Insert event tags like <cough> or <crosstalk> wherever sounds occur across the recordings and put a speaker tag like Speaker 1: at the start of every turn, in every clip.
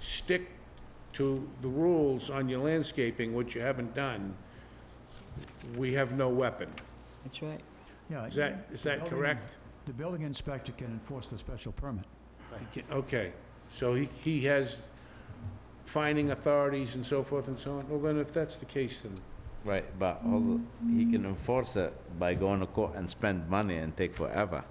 Speaker 1: stick to the rules on your landscaping, which you haven't done, we have no weapon.
Speaker 2: That's right.
Speaker 3: Yeah.
Speaker 1: Is that, is that correct?
Speaker 3: The building inspector can enforce the special permit.
Speaker 1: Okay, so he, he has finding authorities and so forth and so on? Well, then if that's the case, then,
Speaker 4: Right, but all, he can enforce it by going to court and spend money and take forever.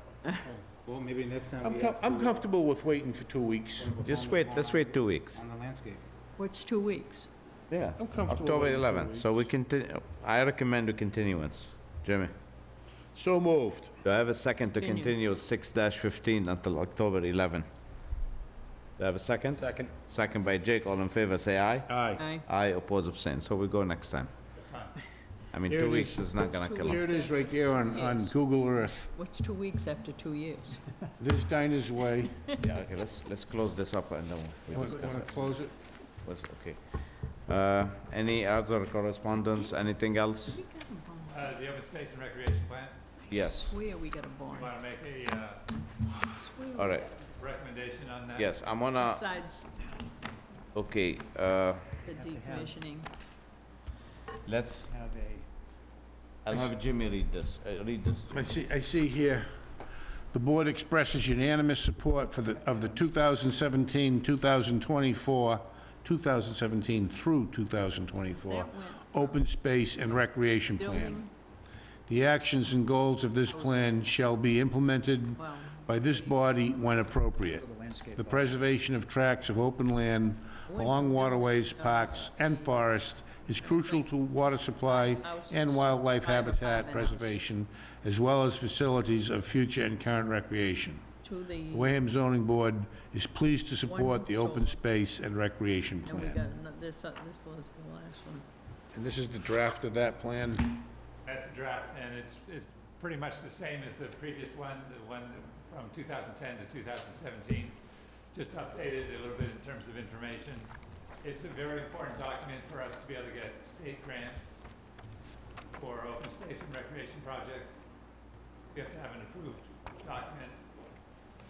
Speaker 5: Well, maybe next time
Speaker 1: I'm,
Speaker 5: we
Speaker 1: com-
Speaker 5: have.
Speaker 1: I'm
Speaker 5: to-
Speaker 1: comfortable with waiting for two weeks.
Speaker 4: Just wait, let's wait two weeks.
Speaker 5: On the landscape.
Speaker 2: What's two weeks?
Speaker 4: Yeah.
Speaker 1: I'm comfortable
Speaker 4: October
Speaker 1: waiting two
Speaker 4: 11th, so we continue, I recommend a continuance. Jimmy,
Speaker 1: So moved.
Speaker 4: do I have a second to
Speaker 2: Continue.
Speaker 4: continue 6-15 until October 11th? Do I have a second? Second. Second by Jake, all in favor, say aye.
Speaker 1: Aye.
Speaker 2: Aye.
Speaker 4: Aye, oppose, abstain, so we go next time. I mean,
Speaker 1: There it
Speaker 4: two
Speaker 1: is.
Speaker 4: weeks is not gonna
Speaker 2: Those two
Speaker 4: kill
Speaker 1: Here
Speaker 4: us.
Speaker 1: it is right there on, on
Speaker 2: Yes.
Speaker 1: Google Earth.
Speaker 2: What's two weeks after two years?
Speaker 1: This Diners Way.
Speaker 4: Yeah, okay, let's, let's close this up and then we
Speaker 1: Want
Speaker 4: discuss
Speaker 1: to
Speaker 4: it.
Speaker 1: close it?
Speaker 4: What's- Okay. Uh, Any other correspondence, anything else?
Speaker 6: Uh, the open space and recreation plan,
Speaker 4: Yes,
Speaker 2: Swear we got a barn.
Speaker 6: you wanna make a, uh,
Speaker 2: Swear
Speaker 4: all right, Uh,
Speaker 6: recommendation on that?
Speaker 4: yes, I'm gonna,
Speaker 2: Besides
Speaker 4: okay, uh,
Speaker 2: the decommissioning.
Speaker 4: let's,
Speaker 5: Have a.
Speaker 4: I'll have Jimmy read this, uh, read this.
Speaker 1: I see, I see here, the board expresses unanimous support for the, of the 2017, 2024, 2017 through 2024,
Speaker 2: That went
Speaker 1: open space and recreation plan.
Speaker 2: Building,
Speaker 1: The actions and goals of this plan shall be implemented
Speaker 2: well,
Speaker 1: by this body when appropriate. The preservation of tracts of open land along waterways, parks, and forests is crucial to water supply and wildlife habitat preservation, as well as facilities of future and current recreation.
Speaker 2: to
Speaker 1: The
Speaker 2: the,
Speaker 1: Wareham Zoning Board is pleased to support the open space and recreation
Speaker 2: and we
Speaker 1: plan.
Speaker 2: got, ano- this, uh, this was the last one.
Speaker 1: And this is the draft of that plan?
Speaker 6: That's the draft, and it's, it's pretty much the same as the previous one, the one from two thousand ten to two thousand seventeen. Just updated a little bit in terms of information. It's a very important document for us to be able to get state grants for open space and recreation projects. We have to have an approved document.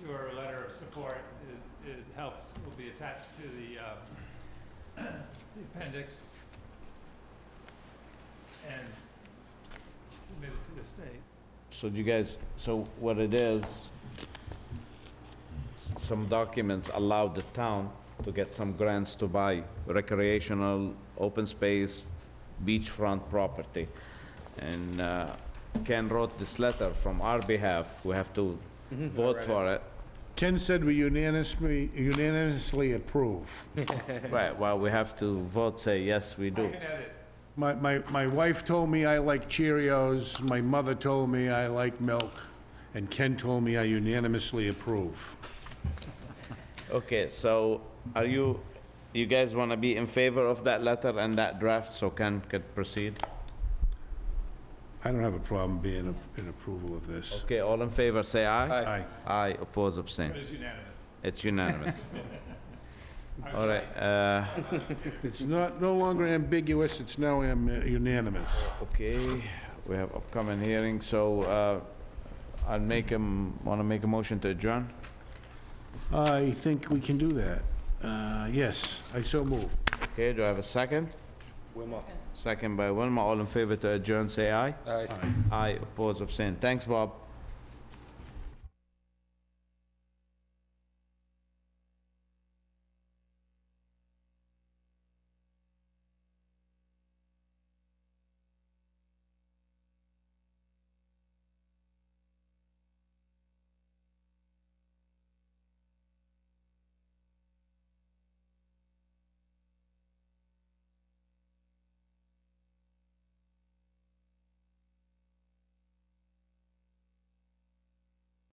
Speaker 6: Your letter of support, it, it helps, will be attached to the, uh, <clears throat> the appendix. And submitted to the state.
Speaker 4: So you guys, so what it is, s- some documents allow the town to get some grants to buy recreational, open space, beachfront property. And uh, Ken wrote this letter from our behalf, we have to vote for it.
Speaker 1: Ken said we unanimously, unanimously approve.
Speaker 4: Right, well, we have to vote, say, yes, we
Speaker 6: I
Speaker 4: do.
Speaker 6: can edit.
Speaker 1: My, my, my wife told me I like Cheerios, my mother told me I like milk, and Ken told me I unanimously approve.
Speaker 4: Okay, so are you, you guys want to be in favor of that letter and that draft, so Ken could proceed?
Speaker 1: I don't have a problem being a- in approval of this.
Speaker 4: Okay, all in favor, say aye.
Speaker 1: Aye.
Speaker 4: Aye, oppose, abstain.
Speaker 6: It is unanimous.
Speaker 4: It's <laughs> unanimous. All right, uh,
Speaker 1: It's not, no longer ambiguous, it's now am- unanimous.
Speaker 4: okay, we have upcoming hearing, so uh, I'll make him, want to make a motion to adjourn?
Speaker 1: I think we can do that. Uh, yes, I so move.
Speaker 4: Okay, do I have a second?
Speaker 5: Wilma.
Speaker 4: Second by Wilma, all in favor to adjourn, say aye.
Speaker 5: Aye.
Speaker 4: Aye, oppose, abstain. Thanks, Bob.